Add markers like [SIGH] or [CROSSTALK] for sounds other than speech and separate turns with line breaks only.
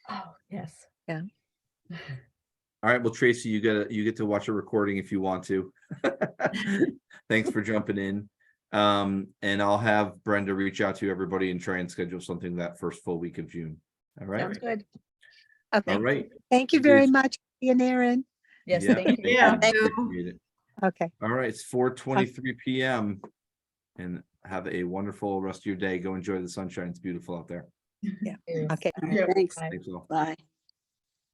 Oh, Yes.
All right, well, Tracy, you get, you get to watch a recording if you want to. [LAUGHS] Thanks for jumping in. Um, and I'll have Brenda reach out to everybody and try and schedule something that first full week of June. All right,
Sounds good.
Okay,
all right.
thank you
It
very
is-
much, Ian Aaron.
Yes,
Yeah.
thank you.
Yeah.
Thank you. Appreciate it.
Okay.
All right, it's four twenty-three PM. And have a wonderful rest of your day. Go enjoy the sunshine. It's beautiful out there.
Okay,
Yeah.
thanks.
Bye.
Thanks all.
Bye.